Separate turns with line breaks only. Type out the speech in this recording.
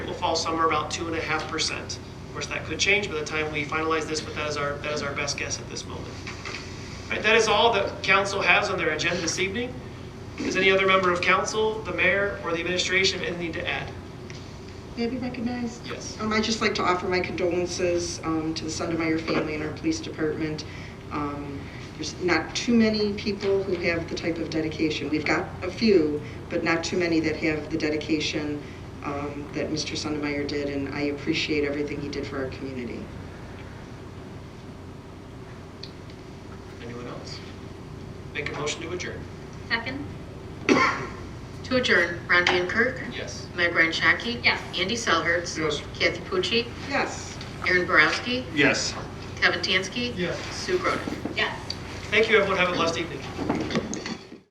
fall somewhere around two and a half percent. Of course, that could change by the time we finalize this, but that is our, that is our best guess at this moment. Right, that is all that council has on their agenda this evening. Does any other member of council, the mayor, or the administration have anything to add?
May I be recognized?
Yes.
Um, I'd just like to offer my condolences um, to the Sundermeyer family and our police department. Um, There's not too many people who have the type of dedication. We've got a few, but not too many that have the dedication um, that Mr. Sundermeyer did, and I appreciate everything he did for our community.
Anyone else? Make a motion to adjourn.
Second?
To adjourn, Ron Van Kirk,
Yes.
Meg Ryan Shaki.
Yes.
Andy Selhertz.
Yes.
Kathy Pucci,
Yes.
Aaron Borowski,
Yes.
Kevin Tansky.
Yes.
Sue Grodick.
Yes.
Thank you, everyone. Have a blessed evening.